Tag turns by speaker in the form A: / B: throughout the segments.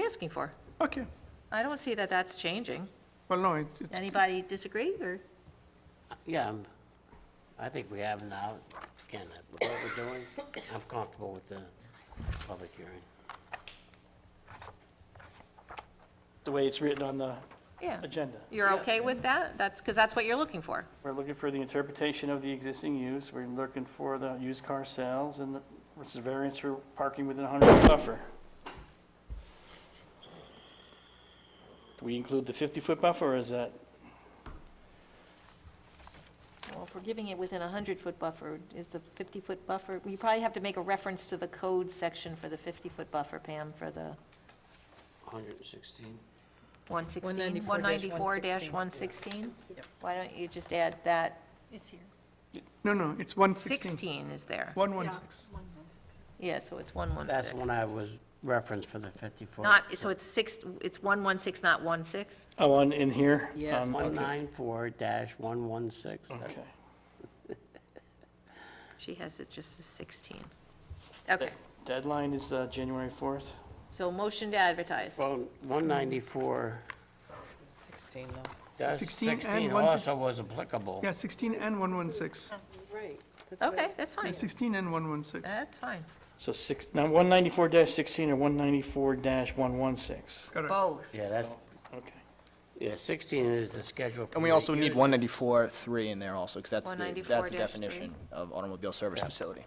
A: asking for.
B: Okay,
A: I don't see that that's changing.
B: well, no, it's, it's-
A: Anybody disagree, or?
C: Yeah, I'm- I think we have now, again, that what we're doing, I'm comfortable with the public hearing.
D: the way it's written on the
A: Yeah.
D: agenda.
A: You're okay with that? That's, because that's what you're looking for.
D: We're looking for the interpretation of the existing use, we're looking for the used car sales, and the what's the variance for parking within 100 buffer. Do we include the 50-foot buffer, or is that,
E: Well, if we're giving it within a 100-foot buffer, is the 50-foot buffer, you probably have to make a reference to the code section for the 50-foot buffer, Pam, for the
C: 116,
E: 116?
A: 194-116.
E: 194-116? Why don't you just add that,
F: It's here.
B: no, no, it's one sixteen,
A: 16 is there.
B: one one six.
E: yeah, so it's
C: that's when
E: 116.
C: I was referenced for the 54.
A: Not, so it's six, it's 116, not 16?
D: oh, on, in here?
C: Yeah, it's
D: Um, okay.
C: 194-116.
D: Okay.
A: She has it just as 16. Okay,
D: Deadline is uh, January 4th.
A: so motion to advertise.
C: Well, 194,
G: 16, though.
C: dash
B: 16 and
C: 16
B: 116.
C: also was applicable.
B: Yeah, sixteen and one one six.
G: Right. that's what I
A: Okay,
G: was-
A: that's fine.
B: Sixteen and one one six.
A: That's fine.
D: So six, now 194-16 or 194-116?
B: Correct.
A: Both.
C: Yeah, that's,
D: Okay.
C: yeah, 16 is the schedule.
H: And we also need 194 3 in there also, because that's the, that's
A: 194-3.
H: the definition of automobile service facility.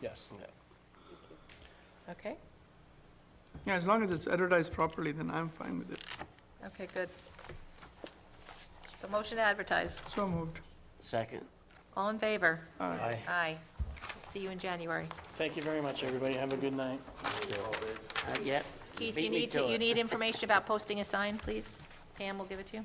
H: Yes.
A: Okay,
B: Yeah, as long as it's advertised properly, then I'm fine with it.
A: okay, good. So motion to advertise.
B: So moved.
C: Second.
A: All in favor?
C: Aye.
A: Aye. See you in January.
D: Thank you very much, everybody, have a good night.
C: Not yet.
A: Keith,
C: Beat
A: you
C: me
A: need, to-
C: it.
A: you need information about posting a sign, please? Pam will give it to you.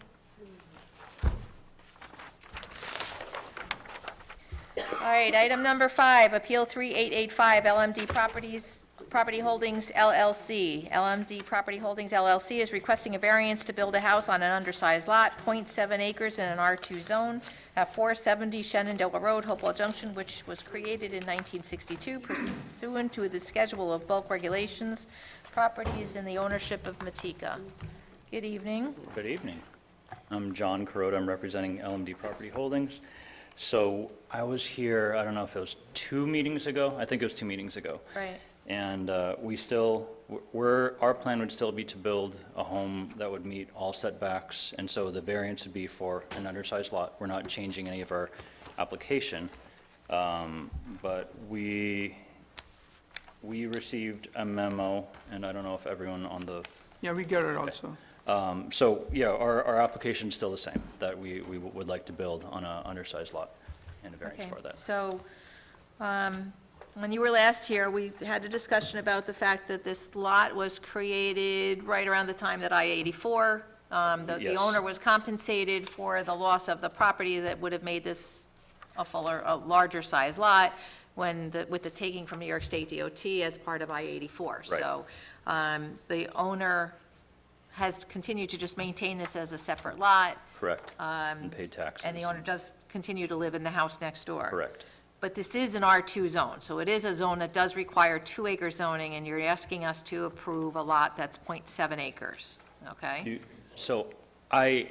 A: All right, item number five, Appeal 3885, LMD Properties, Property Holdings LLC. LMD Property Holdings LLC is requesting a variance to build a house on an undersized lot, .7 acres in an R2 zone at 470 Shenandoah Road, Hopewell Junction, which was created in 1962 pursuant to the schedule of bulk regulations, properties in the ownership of Matika. Good evening.
I: Good evening. I'm John Carota. I'm representing LMD Property Holdings. So I was here, I don't know if it was two meetings ago, I think it was two meetings ago.
A: Right.
I: And uh, we still, we're, our plan would still be to build a home that would meet all setbacks, and so the variance would be for an undersized lot. We're not changing any of our application. Um, But we, we received a memo, and I don't know if everyone on the
B: Yeah, we get it also.
I: um, So, yeah, our, our application's still the same, that we, we would like to build on a undersized lot and a variance
A: Okay,
I: for that.
A: So, um, when you were last here, we had a discussion about the fact that this lot was created right around the time that I-84, um, the, the
I: Yes.
A: owner was compensated for the loss of the property that would have made this a fuller, a larger size lot when, the- with the taking from New York State DOT as part of I-84. So, um, the owner has continued to just maintain this as a separate lot,
I: Correct.
A: um,
I: And paid taxes.
A: and the owner does continue to live in the house next door.
I: Correct.
A: But this is an R2 zone, so it is a zone that does require two-acre zoning, and you're asking us to approve a lot that's .7 acres, okay?
I: You- So I,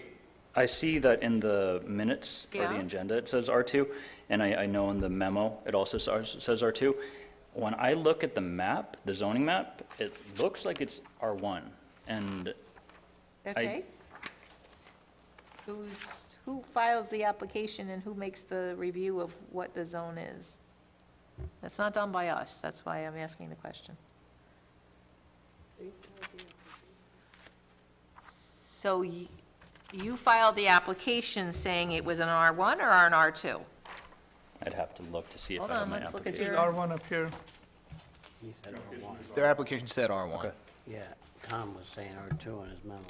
I: I see that in the minutes or the
A: Yeah.
I: agenda, it says R2, and I, I know in the memo, it also says says R2. When I look at the map, the zoning map, it looks like it's R1, and
A: Okay. Who's, who files the application and who makes the review of what the zone is? That's not done by us, that's why I'm asking the question. So y- you filed the application saying it was an R1 or an R2?
I: I'd have to look to see if I
A: Hold
I: have
A: on,
I: my
A: let's look at
I: application.
A: your.
B: R one up here.
C: He said R1.
H: Their application said R1.
C: Yeah, Tom was saying R2 in his memo.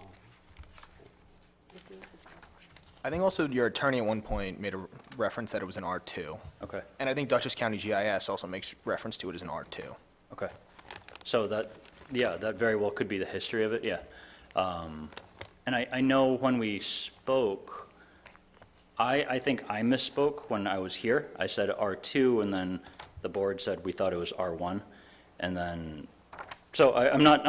H: I think also your attorney at one point made a re- reference that it was an R2.
I: Okay.
H: And I think Dutchess County GIS also makes reference to it as an R2.
I: Okay. So that, yeah, that very well could be the history of it, yeah. Um, And I, I know when we spoke, I, I think I misspoke when I was here. I said R2, and then the board said we thought it was R1. And then, so I, I'm not,